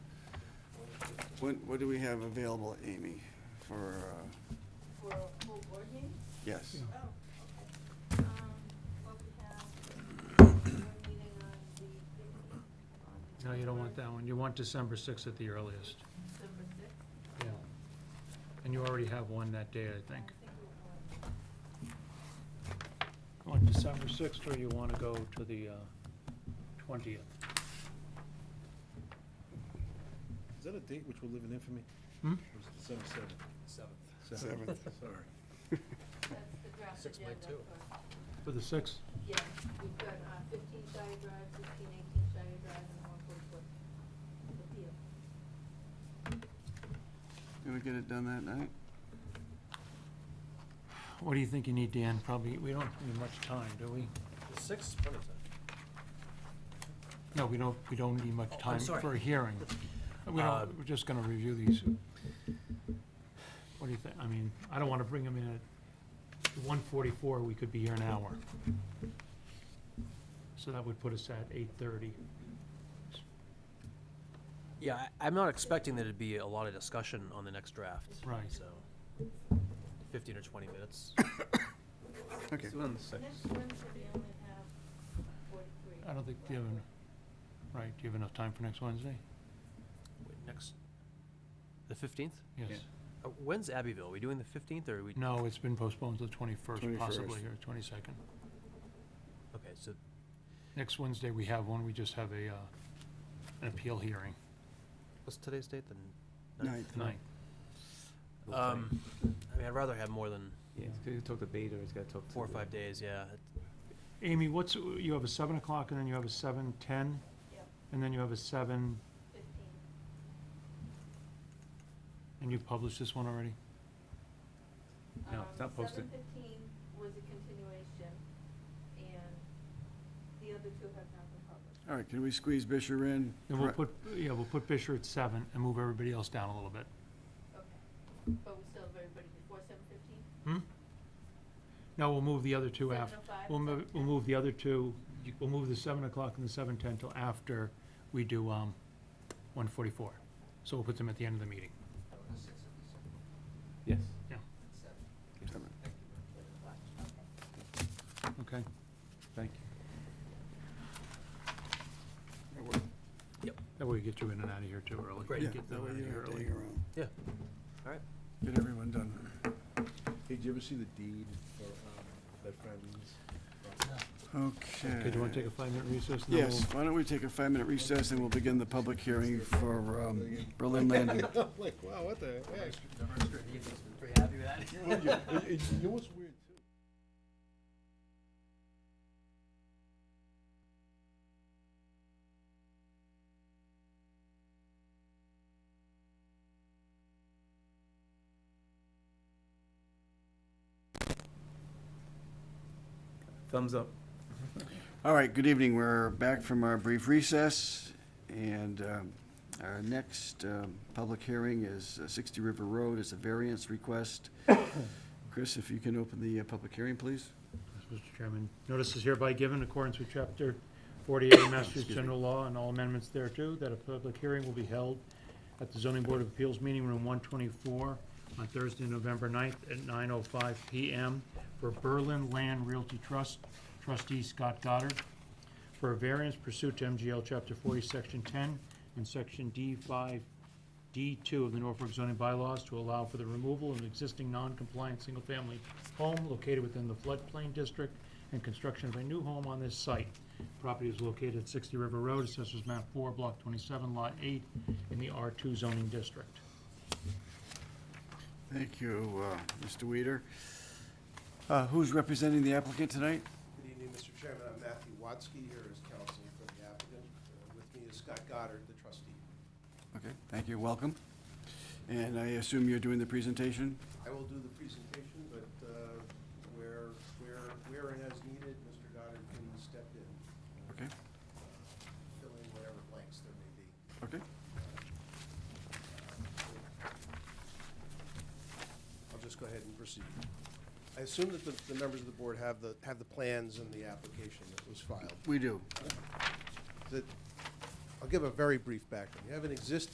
When, what do we have available, Amy, for, uh, For a full board meeting? yes? Oh, okay. Um, well, we have, we're meeting on the. 15th, on No, you don't want December- that one. You want December sixth at the earliest. December sixth. Yeah. And you already have one that day, I I think. think we will. On December sixth, or you want to go to the uh, twentieth? Is that a date which will live in infamy? Hmm? Or is it December seventh? Seventh. Seventh. Sorry. That's the draft Six by agenda two. for, For the sixth? yeah, we've got uh, fifteen Shire Drive, sixteen, eighteen Shire Drive, and one forty-four. Appeal. Can we get it done that night? What do you think you need, Dan? Probably, we don't need much time, do we? The sixth is plenty of time. No, we don't, we don't need much Oh, I'm time sorry. for a hearing. We Uh, don't, we're just gonna review these. What do you think? I mean, I don't wanna bring them in at one forty-four, we could be here an hour. So that would put us at eight thirty. Yeah, I, I'm not expecting there to be a lot of discussion on the next draft. Right. So, fifteen or twenty minutes. Okay. on the Next Wednesday, we only have forty-three. I don't think you have, en- right, do you have enough time for next Wednesday? Wait, next, the fifteenth? Yes. Uh, when's Abbeville? Are we doing the fifteenth or are we? No, it's been postponed to the twenty-first 21st. possibly, or twenty-second. Okay, so Next Wednesday, we have one, we just have a, uh, an appeal hearing, what's today's date? The Ninth. ninth. Um, I mean, I'd rather have more than Yeah, it's gonna talk to Beta, it's gotta talk to. four or the- five days, yeah. Amy, what's, you have a seven o'clock, and then you have a seven-ten, Yep, and then you have a seven, fifteen. and you published this one already? No, it's not posted. Um, Seven fifteen was a continuation, and the other two have not been published. All right, can we squeeze Bisher in? Then we'll put, yeah, we'll put Fisher at seven and move everybody else down a little bit. Okay, but we still have everybody before seven fifteen? Hmm? No, we'll move the other two after. 7:05, We'll move, we'll 7:10. move the other two, we'll move the seven o'clock and the seven-ten till after we do, um, one forty-four. So we'll put them at the end of the meeting. Yes. Yeah, Seven. okay. Thank you. That work? That way we get you in and out of here too early. Great. Yeah, Get that them way out of you here don't have to early. hang around. Yeah. All right. Get everyone done. Hey, did you ever see the deed for, um, that Friendly's? Okay. Okay, do you wanna take a five-minute recess? and then Yes, why don't we take a five-minute recess and we'll begin the public hearing for um, Berlin Landing. Like, wow, what the heck? Pretty happy with that. Well, You you- you know what's weird too? Thumbs up. All right, good evening. We're back from our brief recess, and um, our next um, public hearing is uh, 60 River Road. It's a variance request. Chris, if you can open the uh, public hearing, please. Yes, Mr. Chairman, notice is hereby given in accordance with Chapter 48 of Excuse Massachusetts me. General Law and all amendments thereto, that a public hearing will be held at the Zoning Board of Appeals Meeting Room 124 on Thursday, November 9th at 9:05 PM for Berlin Land Realty Trust, trustee Scott Goddard, for a variance pursuant to MGL Chapter 40, Section 10, and Section D5, D2 of the Norfolk zoning bylaws to allow for the removal of an existing non-compliant single-family home located within the floodplain district and construction of a new home on this site. Property is located at 60 River Road, Assessors Map 4, Block 27, Lot 8, in the R2 zoning district. Thank you, uh, Mr. Weeder. Uh, Who's representing the applicant tonight? Good evening, Mr. Chairman. I'm Matthew Watsky here as counsel for the applicant. Uh, With me is Scott Goddard, the trustee. Okay, thank you, welcome. And I assume you're doing the presentation? I will do the presentation, but uh, where, where, where and as needed, Mr. Goddard can step in, Uh, Okay, fill in whatever blanks there may be. okay. I'll just go ahead and proceed. I assume that the, the members of the board have the, have the plans and the application that was filed. We do. That, I'll give a very brief background. You have an existing